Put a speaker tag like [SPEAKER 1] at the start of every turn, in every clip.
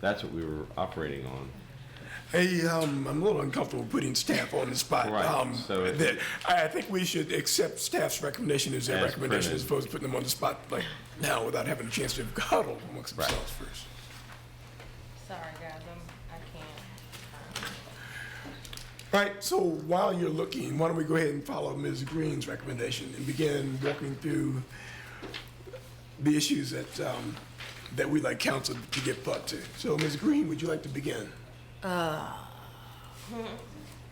[SPEAKER 1] That's what we were operating on.
[SPEAKER 2] Hey, um, I'm a little uncomfortable putting staff on the spot.
[SPEAKER 1] Right,
[SPEAKER 2] Um,
[SPEAKER 1] so it-
[SPEAKER 2] that- I, I think we should accept staff's recommendation as their
[SPEAKER 1] As
[SPEAKER 2] recommendation as
[SPEAKER 1] printed.
[SPEAKER 2] opposed to putting them on the spot like now without having a chance to huddle amongst
[SPEAKER 1] Right.
[SPEAKER 2] themselves first.
[SPEAKER 3] Sorry, guys, I'm, I can't.
[SPEAKER 2] All right, so while you're looking, why don't we go ahead and follow Ms. Green's recommendation and begin walking through the issues that, um, that we'd like council to get put to. So Ms. Green, would you like to begin?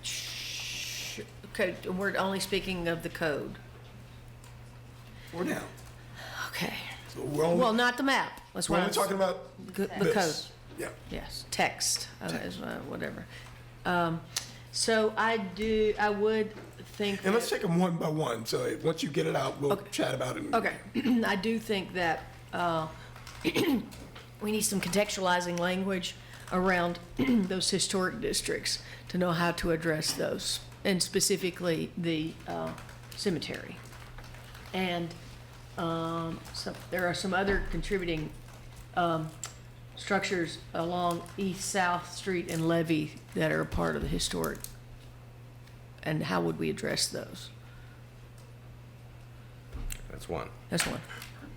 [SPEAKER 4] Sh- Okay, we're only speaking of the code.
[SPEAKER 2] Or now?
[SPEAKER 4] Okay.
[SPEAKER 2] So we're only,
[SPEAKER 4] Well, not the map. That's
[SPEAKER 2] we're
[SPEAKER 4] what
[SPEAKER 2] only
[SPEAKER 4] I'm.
[SPEAKER 2] talking about
[SPEAKER 4] G- The code,
[SPEAKER 2] this. Yeah,
[SPEAKER 4] yes, text, uh, is, uh, whatever. Um, So I do, I would think.
[SPEAKER 2] and
[SPEAKER 4] that-
[SPEAKER 2] let's take them one by one, so if- once you get it out, we'll chat about it.
[SPEAKER 4] Okay, I do think that uh, we need some contextualizing language around those historic districts to know how to address those, and specifically the uh, cemetery. And um, so there are some other contributing um, structures along East South Street and Levy that are a part of the historic. And how would we address those?
[SPEAKER 1] That's one.
[SPEAKER 4] That's one.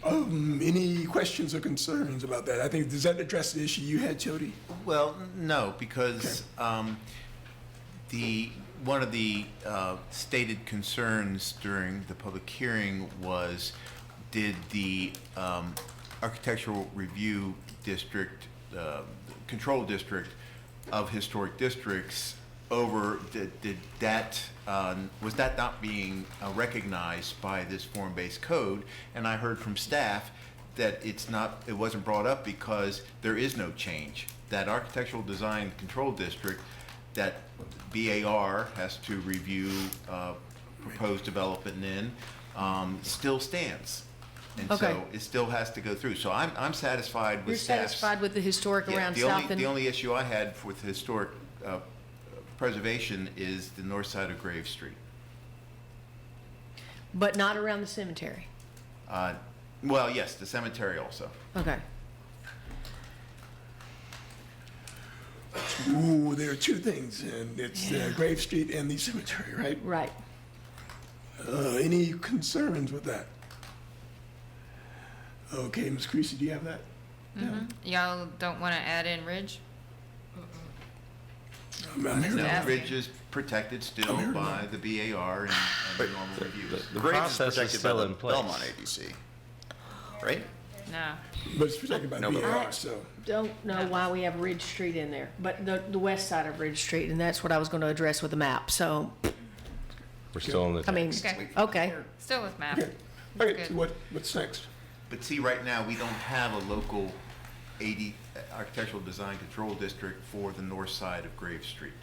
[SPEAKER 2] Um, any questions or concerns about that? I think, does that address the issue you had, Jody?
[SPEAKER 5] Well, no, because um, the, one of the uh, stated concerns during the public hearing was, did the um, architectural review district, uh, control district of historic districts over, did did that, uh, was that not being uh, recognized by this form-based code? And I heard from staff that it's not, it wasn't brought up because there is no change. That architectural design control district, that BAR has to review uh, proposed development in, um, still stands. And
[SPEAKER 4] Okay.
[SPEAKER 5] so it still has to go through. So I'm, I'm satisfied
[SPEAKER 4] You're
[SPEAKER 5] with staff's.
[SPEAKER 4] satisfied with the historic
[SPEAKER 5] Yeah,
[SPEAKER 4] around
[SPEAKER 5] the
[SPEAKER 4] South
[SPEAKER 5] only-
[SPEAKER 4] and?
[SPEAKER 5] The only issue I had with historic uh, preservation is the north side of Grave Street.
[SPEAKER 4] But not around the cemetery.
[SPEAKER 5] Uh, Well, yes, the cemetery also.
[SPEAKER 4] Okay.
[SPEAKER 2] Ooh, there are two things, and it's uh, Grave Street and the cemetery, right?
[SPEAKER 4] Right.
[SPEAKER 2] Uh, any concerns with that? Okay, Ms. Creasy, do you have that?
[SPEAKER 3] Y'all don't wanna add in Ridge?
[SPEAKER 2] I'm I'm here.
[SPEAKER 3] No.
[SPEAKER 5] The
[SPEAKER 3] asking.
[SPEAKER 5] bridge is protected still by the BAR and and the normal reviews.
[SPEAKER 1] The
[SPEAKER 6] Graves
[SPEAKER 1] process is
[SPEAKER 6] protected by
[SPEAKER 1] still
[SPEAKER 6] the
[SPEAKER 1] in place.
[SPEAKER 6] Belmont ADC, right?
[SPEAKER 3] No.
[SPEAKER 2] But it's protected by
[SPEAKER 6] No, but-
[SPEAKER 2] BAR, E so.
[SPEAKER 4] Don't know why we have Ridge Street in there, but the, the west side of Ridge Street, and that's what I was gonna address with the map, so,
[SPEAKER 1] We're still on the.
[SPEAKER 4] I mean,
[SPEAKER 3] Okay.
[SPEAKER 4] okay,
[SPEAKER 3] Still with map.
[SPEAKER 2] Okay, okay,
[SPEAKER 3] Good.
[SPEAKER 2] so what, what's next?
[SPEAKER 5] But see, right now, we don't have a local AD, uh, architectural design control district for the north side of Grave Street.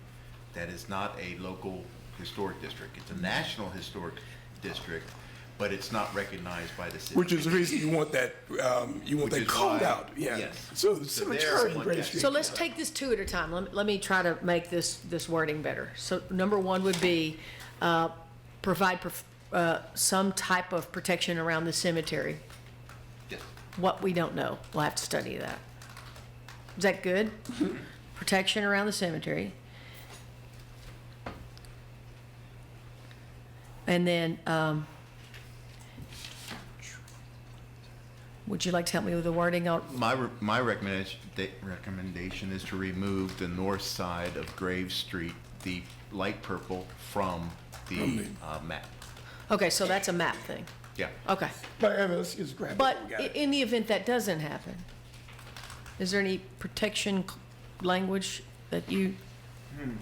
[SPEAKER 5] That is not a local historic district. It's a national historic district, but it's not recognized by the city.
[SPEAKER 2] Which is the reason you want that, um, you want
[SPEAKER 5] Which
[SPEAKER 2] that
[SPEAKER 5] is
[SPEAKER 2] called
[SPEAKER 5] why-
[SPEAKER 2] out, yeah.
[SPEAKER 5] yes.
[SPEAKER 2] So the
[SPEAKER 5] So there,
[SPEAKER 2] cemetery and
[SPEAKER 5] one
[SPEAKER 2] Grave
[SPEAKER 5] guess.
[SPEAKER 2] Street.
[SPEAKER 4] so let's take this two at a time, let, me- let me try to make this, this wording better. So number one would be, uh, provide, prof- uh, some type of protection around the cemetery.
[SPEAKER 5] Yes.
[SPEAKER 4] What we don't know, we'll have to study that. Is that good? Protection around the cemetery. And then, um, would you like to help me with the wording on,
[SPEAKER 5] My, re- my recommendation, de- recommendation is to remove the north side of Grave Street, the light purple, from the uh, map.
[SPEAKER 4] okay, so that's a map thing,
[SPEAKER 5] Yeah.
[SPEAKER 4] okay.
[SPEAKER 2] But, uh, let's just grab it.
[SPEAKER 4] But
[SPEAKER 2] We got
[SPEAKER 4] i-
[SPEAKER 2] it.
[SPEAKER 4] in the event that doesn't happen, is there any protection c- language that you?
[SPEAKER 6] Hmm.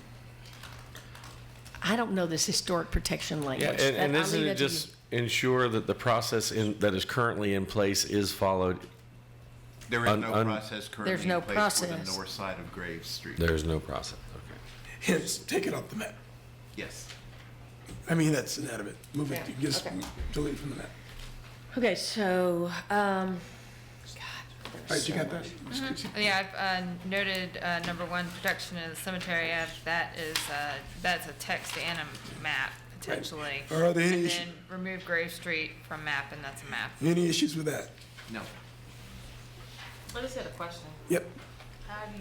[SPEAKER 4] I don't know this historic protection
[SPEAKER 6] Yeah,
[SPEAKER 4] language.
[SPEAKER 6] and,
[SPEAKER 4] That-
[SPEAKER 6] and
[SPEAKER 4] I'll
[SPEAKER 6] isn't
[SPEAKER 4] leave
[SPEAKER 6] it
[SPEAKER 4] that to you.
[SPEAKER 6] just ensure that the process in, that is currently in place is followed?
[SPEAKER 5] There is
[SPEAKER 6] Un-
[SPEAKER 5] no
[SPEAKER 6] un-
[SPEAKER 5] process
[SPEAKER 4] There's
[SPEAKER 5] currently
[SPEAKER 4] no
[SPEAKER 5] in place for the
[SPEAKER 4] process.
[SPEAKER 5] north side of Grave Street.
[SPEAKER 1] There's no process, okay.
[SPEAKER 2] Hence, take it off the map.
[SPEAKER 5] Yes.
[SPEAKER 2] I mean, that's inanimate. Move it,
[SPEAKER 4] Yeah,
[SPEAKER 2] just
[SPEAKER 4] okay.
[SPEAKER 2] delete it from the map.
[SPEAKER 4] Okay, so, um,
[SPEAKER 2] All right, you got that? Ms.
[SPEAKER 4] Mm-hmm.
[SPEAKER 2] Creasy?
[SPEAKER 3] Yeah, I've uh, noted uh, number one, protection of the cemetery. I've, that is, uh, that's a text and a map potentially.
[SPEAKER 2] Are there any
[SPEAKER 3] And
[SPEAKER 2] issue-
[SPEAKER 3] then remove Grave Street from map, and that's a map.
[SPEAKER 2] Any issues with that?
[SPEAKER 5] No.
[SPEAKER 3] I just had a question.
[SPEAKER 2] Yep.
[SPEAKER 3] How do